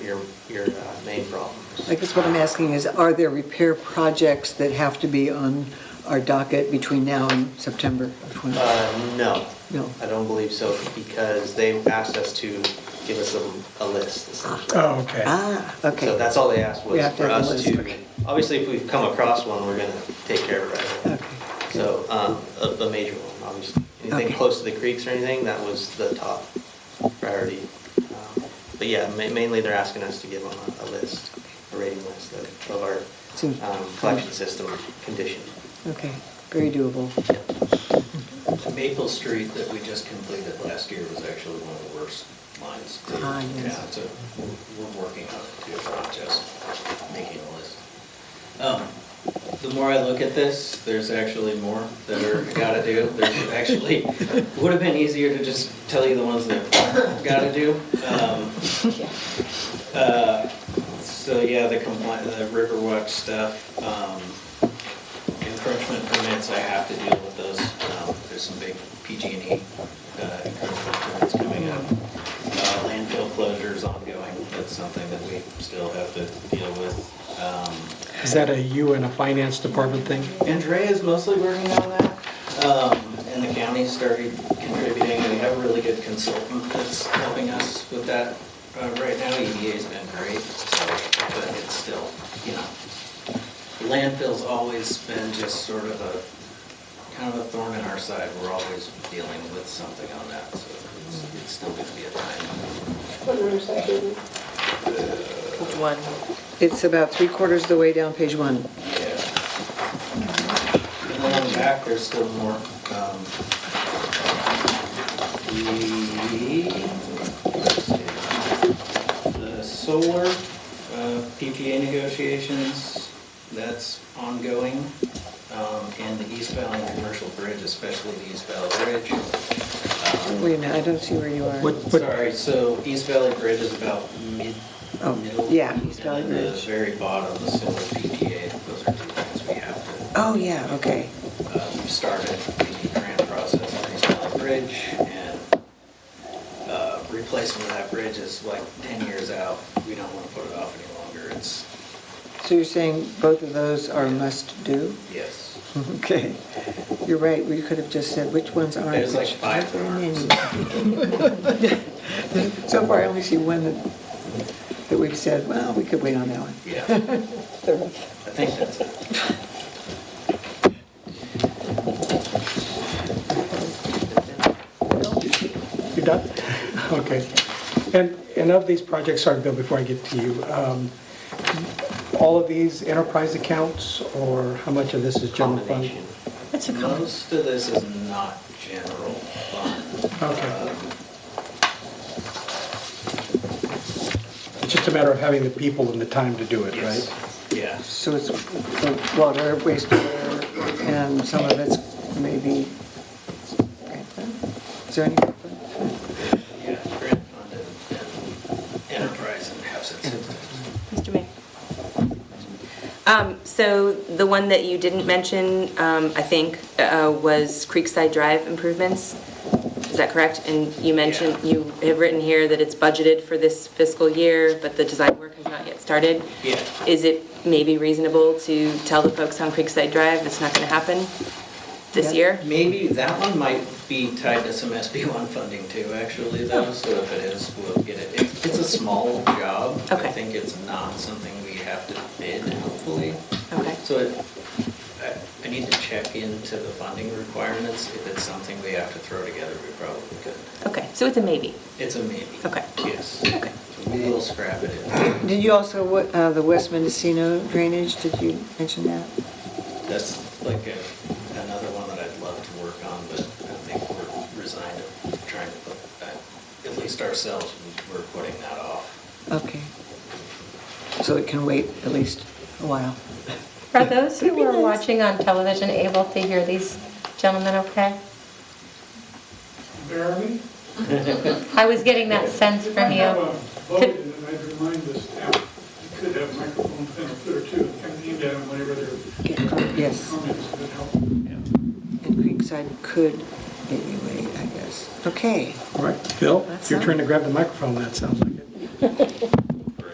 your, your uh, main I problems. guess what I'm asking is, are there repair projects that have to be on our docket between now and September of 20? Uh, no. No. I don't believe so, because they asked us to give us a, a list essentially. Oh, okay. Ah, So okay, that's all they asked We was have to for have a us list, to, okay. obviously, if we've come across one, we're gonna take care of it right away. okay. So, um, a, a major one, obviously. Anything Okay. close to the creeks or anything, that was the top priority. Um, But yeah, ma- mainly they're asking us to give them a, a list, a rating list of, of our, Seems- um, collection system condition. Okay, very doable. Maple Street that we just completed last year was actually one of the worst lines. Ah, yes. Yeah, so we're- we're working on it too, not just making a list. Um, The more I look at this, there's actually more that are gotta do. There's actually, would have been easier to just tell you the ones that gotta do. Um, uh, So yeah, the compli the Riverwalk stuff, um, encroachment permits, I have to deal with those. Um, There's some big PG&E uh, encroachment permits coming up. Uh, Landfill closures ongoing, that's something that we still have to deal with. Um, Is that a you and a finance department thing? Andrea is mostly working on that, um, and the county started contributing, we have a really good consultant that's helping us with that. Uh, right now, EDA's been great, so, but it's still, you know, landfill's always been just sort of a, kind of a thorn in our side, we're always dealing with something on that, so it's, it's still gonna be a time. What number section? One. It's about three quarters of the way down page one. Yeah. And then on the back, there's still more. um, The let's see, the solar uh, PPA negotiations, that's ongoing. um, And the East Valley Commercial Bridge, especially the East Valley Bridge. Um, Wait a minute, I don't see where you What, are. what, Sorry, so East Valley Bridge is about mid, Oh, middle. yeah, East Valley And then the Bridge. very bottom, the solar PPA, those are two things we have to Oh, yeah, okay. uh, We've started the grant process on East Valley Bridge, and uh, replacement of that bridge is like 10 years out. We don't want to put it off any longer. It's, So you're saying both of those are must-do? yes. Okay. You're right, we could have just said which ones aren't. There's like which five that aren't. aren't, So far, I only see one that, that we've said, well, we could wait on that one. Yeah, I think that's it. you done? Okay. And, and of these projects, sorry, Bill, before I get to you, um, all of these enterprise accounts, or how much of this is general fund? Combination. It's a common. Most of this is not general fund. Um, Okay. It's just a matter of having the people and the time to do it, Yes. right? Yeah. So it's water, wastewater, and some of it's maybe, is there any? Yeah, grant fund and- and enterprise and house and Mr. Mayor. Um, So the one that you didn't mention, um, I think, uh, was Creekside Drive improvements. Is that correct? And you mentioned, you have written here that it's budgeted for this fiscal year, but the design work has not yet started. Yeah. Is it maybe reasonable to tell the folks on Creekside Drive it's not going to happen this Yeah. year? Maybe that one might be tied to some SB1 funding too, actually, Oh. though, so if it is, we'll get it. It's it's a small job. I Okay. think it's not something we have to bid, hopefully. Okay. So it- I- I need to check into the funding requirements. If it's something we have to throw together, we probably could. Okay, so it's a maybe. It's a maybe. Okay. Yes. Okay. So We will scrap it. in. Did you also, uh, the West Mendocino drainage, did you mention that? That's like a- another one that I'd love to work on, but I think we're resigned to trying to put, that- at least ourselves, we're putting that off. Okay. So it can wait at least a while. Are those who Fabulous. are watching on television able to hear these gentlemen okay? Jeremy? I was getting that sense You from might have you. a vote, and I'd remind this town, you could have microphones in a foot or two, and kind of aim at them whenever they're. Yes. Comments would help. And Creekside could maybe wait, I guess. Okay. All right, Bill, That's your all. turn to grab the microphone, that sounds like it.